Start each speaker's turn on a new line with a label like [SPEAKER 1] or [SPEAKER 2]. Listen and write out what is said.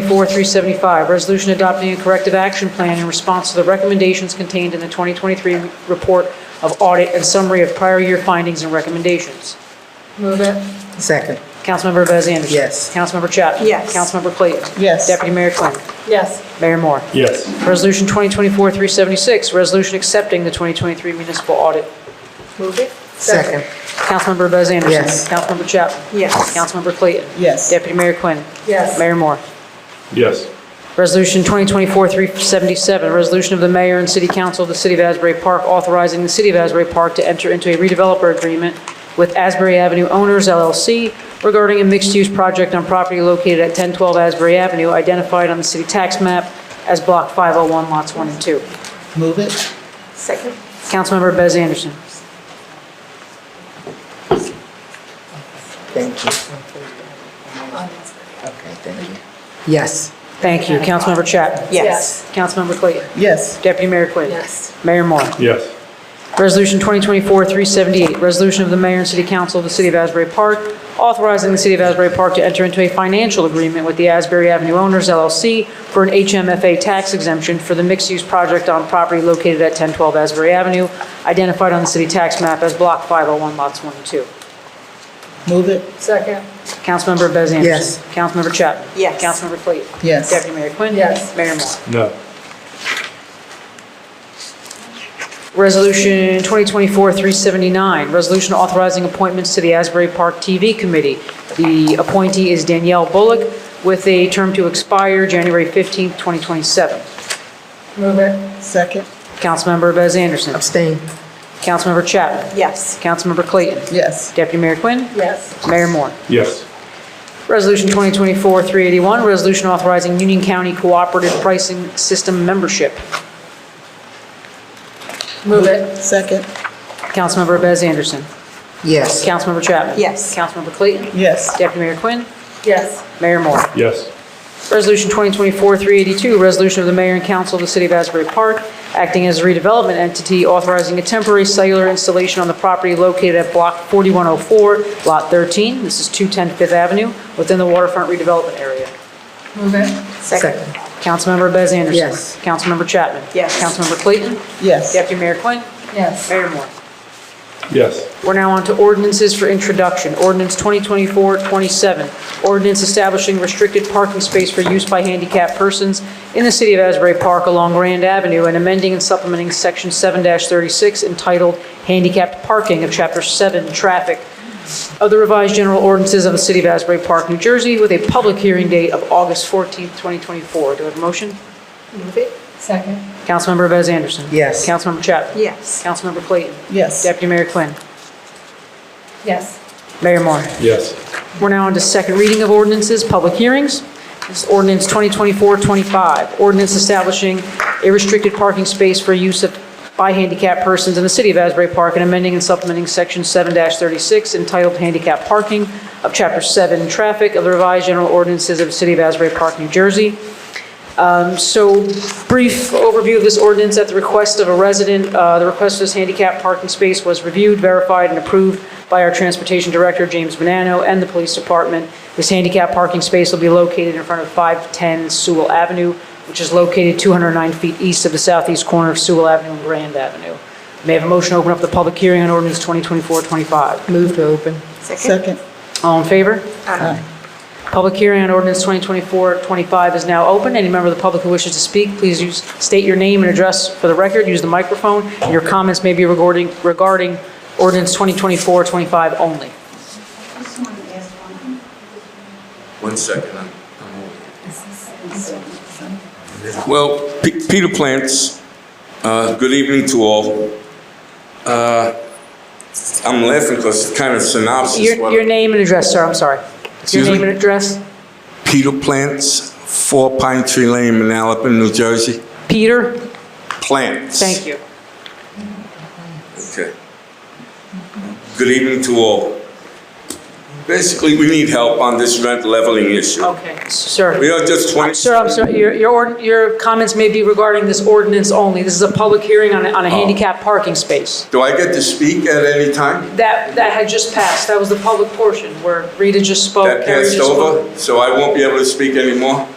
[SPEAKER 1] 74 through 75, resolution adopting a corrective action plan in response to the recommendations contained in the 2023 report of audit and summary of prior year findings and recommendations.
[SPEAKER 2] Move it.
[SPEAKER 3] Second.
[SPEAKER 1] Councilmember Bez Anderson.
[SPEAKER 3] Yes.
[SPEAKER 1] Councilmember Chapman.
[SPEAKER 2] Yes.
[SPEAKER 1] Councilmember Clayton.
[SPEAKER 3] Yes.
[SPEAKER 1] Deputy Mayor Quinn.
[SPEAKER 2] Yes.
[SPEAKER 1] Mayor Moore.
[SPEAKER 4] yes,
[SPEAKER 1] Resolution 2024-376, resolution accepting the 2023 municipal audit.
[SPEAKER 2] Move it.
[SPEAKER 3] Second.
[SPEAKER 1] Councilmember Bez Anderson.
[SPEAKER 3] Yes.
[SPEAKER 1] Councilmember Chapman.
[SPEAKER 2] Yes.
[SPEAKER 1] Councilmember Clayton.
[SPEAKER 3] Yes.
[SPEAKER 1] Deputy Mayor Quinn.
[SPEAKER 2] Yes.
[SPEAKER 1] Mayor Moore.
[SPEAKER 4] yes,
[SPEAKER 1] Resolution 2024-377, resolution of the mayor and city council of the city of Asbury Park authorizing the city of Asbury Park to enter into a redeveloper agreement with Asbury Avenue Owners LLC regarding a mixed-use project on property located at 1012 Asbury Avenue identified on the city tax map as Block 501, Lots 1 and 2.
[SPEAKER 3] Move it.
[SPEAKER 2] Second.
[SPEAKER 1] Councilmember Bez Anderson.
[SPEAKER 3] Thank you. Okay, thank you. Yes.
[SPEAKER 1] Thank you. Councilmember Chapman.
[SPEAKER 2] Yes.
[SPEAKER 1] Councilmember Clayton.
[SPEAKER 3] Yes.
[SPEAKER 1] Deputy Mayor Quinn.
[SPEAKER 2] Yes.
[SPEAKER 1] Mayor Moore.
[SPEAKER 4] yes,
[SPEAKER 1] Resolution 2024-378, resolution of the mayor and city council of the city of Asbury Park, authorizing the city of Asbury Park to enter into a financial agreement with the Asbury Avenue Owners LLC for an HMFA tax exemption for the mixed-use project on property located at 1012 Asbury Avenue, identified on the city tax map as Block 501, Lots 1 and 2.
[SPEAKER 3] Move it.
[SPEAKER 2] Second.
[SPEAKER 1] Councilmember Bez Anderson.
[SPEAKER 3] Yes.
[SPEAKER 1] Councilmember Chapman.
[SPEAKER 2] Yes.
[SPEAKER 1] Councilmember Clayton.
[SPEAKER 3] Yes.
[SPEAKER 1] Deputy Mayor Quinn.
[SPEAKER 2] Yes.
[SPEAKER 1] Mayor Moore.
[SPEAKER 4] no,
[SPEAKER 1] Resolution 2024-379, resolution authorizing appointments to the Asbury Park TV Committee. The appointee is Danielle Bullock with a term to expire January 15th, 2027.
[SPEAKER 2] Move it.
[SPEAKER 3] Second.
[SPEAKER 1] Councilmember Bez Anderson.
[SPEAKER 3] Abstain.
[SPEAKER 1] Councilmember Chapman.
[SPEAKER 2] Yes.
[SPEAKER 1] Councilmember Clayton.
[SPEAKER 3] Yes.
[SPEAKER 1] Deputy Mayor Quinn.
[SPEAKER 2] Yes.
[SPEAKER 1] Mayor Moore.
[SPEAKER 4] yes,
[SPEAKER 1] Resolution 2024-381, resolution authorizing Union County Cooperative Pricing System membership.
[SPEAKER 2] Move it.
[SPEAKER 3] Second.
[SPEAKER 1] Councilmember Bez Anderson.
[SPEAKER 3] Yes.
[SPEAKER 1] Councilmember Chapman.
[SPEAKER 2] Yes.
[SPEAKER 1] Councilmember Clayton.
[SPEAKER 3] Yes.
[SPEAKER 1] Deputy Mayor Quinn.
[SPEAKER 2] Yes.
[SPEAKER 1] Mayor Moore.
[SPEAKER 4] yes,
[SPEAKER 1] Resolution 2024-382, resolution of the mayor and council of the city of Asbury Park, acting as a redevelopment entity, authorizing a temporary cellular installation on the property located at Block 4104, Lot 13, this is 210 Fifth Avenue, within the waterfront redevelopment area.
[SPEAKER 2] Move it.
[SPEAKER 3] Second.
[SPEAKER 1] Councilmember Bez Anderson.
[SPEAKER 3] Yes.
[SPEAKER 1] Councilmember Chapman.
[SPEAKER 2] Yes.
[SPEAKER 1] Councilmember Clayton.
[SPEAKER 3] Yes.
[SPEAKER 1] Deputy Mayor Quinn.
[SPEAKER 2] Yes.
[SPEAKER 1] Mayor Moore.
[SPEAKER 4] yes,
[SPEAKER 1] We're now on to ordinances for introduction. Ordinance 2024-27, ordinance establishing restricted parking space for use by handicapped persons in the city of Asbury Park along Grand Avenue and amending and supplementing Section 7-36 entitled Handicapped Parking of Chapter 7 Traffic of the Revised General Ordinances of the city of Asbury Park, New Jersey, with a public hearing date of August 14, 2024. Do I have a motion?
[SPEAKER 2] Move it. Second.
[SPEAKER 1] Councilmember Bez Anderson.
[SPEAKER 3] Yes.
[SPEAKER 1] Councilmember Chapman.
[SPEAKER 2] Yes.
[SPEAKER 1] Councilmember Clayton.
[SPEAKER 3] Yes.
[SPEAKER 1] Deputy Mayor Quinn.
[SPEAKER 2] Yes.
[SPEAKER 1] Mayor Moore.
[SPEAKER 4] yes,
[SPEAKER 1] We're now on to second reading of ordinances, public hearings. This is ordinance 2024-25, ordinance establishing a restricted parking space for use of, by handicapped persons in the city of Asbury Park and amending and supplementing Section 7-36 entitled Handicap Parking of Chapter 7 Traffic of the Revised General Ordinances of the city of Asbury Park, New Jersey. So brief overview of this ordinance at the request of a resident. Uh, The request for this handicap parking space was reviewed, verified, and approved by our Transportation Director, James Bonanno, and the Police Department. This handicap parking space will be located in front of 510 Sewell Avenue, which is located 209 feet east of the southeast corner of Sewell Avenue and Grand Avenue. May I have a motion to open up the public hearing on ordinance 2024-25?
[SPEAKER 3] Move to open.
[SPEAKER 2] Second.
[SPEAKER 3] Second.
[SPEAKER 1] All in favor?
[SPEAKER 2] Aye.
[SPEAKER 1] Public hearing on ordinance 2024-25 is now open. Any member of the public who wishes to speak, please use, state your name and address for the record, use the microphone, and your comments may be regarding, regarding ordinance 2024-25 only.
[SPEAKER 5] One second. I'm- I'm- Well, P- Peter Plants, uh, good evening to all. Uh, I'm laughing because it's kind of synopsis.
[SPEAKER 1] Your,
[SPEAKER 5] what-
[SPEAKER 1] your name and address, sir, I'm sorry. Your
[SPEAKER 5] Excuse
[SPEAKER 1] name
[SPEAKER 5] me?
[SPEAKER 1] and address?
[SPEAKER 5] Peter Plants, 4 Pine Tree Lane, Manalapan, New Jersey.
[SPEAKER 1] Peter?
[SPEAKER 5] Plants.
[SPEAKER 1] Thank you.
[SPEAKER 5] Okay. Good evening to all. Basically, we need help on this rent leveling issue.
[SPEAKER 1] Okay.
[SPEAKER 5] We
[SPEAKER 1] Sir,
[SPEAKER 5] are just 20...
[SPEAKER 1] sir, I'm sorry, your, your, ord- your comments may be regarding this ordinance only. This is a public hearing on, a-
[SPEAKER 5] Oh.
[SPEAKER 1] on a handicap parking space.
[SPEAKER 5] Do I get to speak at any time?
[SPEAKER 1] That, that had just passed. That was the public portion where Rita just spoke.
[SPEAKER 5] that
[SPEAKER 1] Carrie just
[SPEAKER 5] passed
[SPEAKER 1] spoke.
[SPEAKER 5] over, so I won't be able to speak anymore?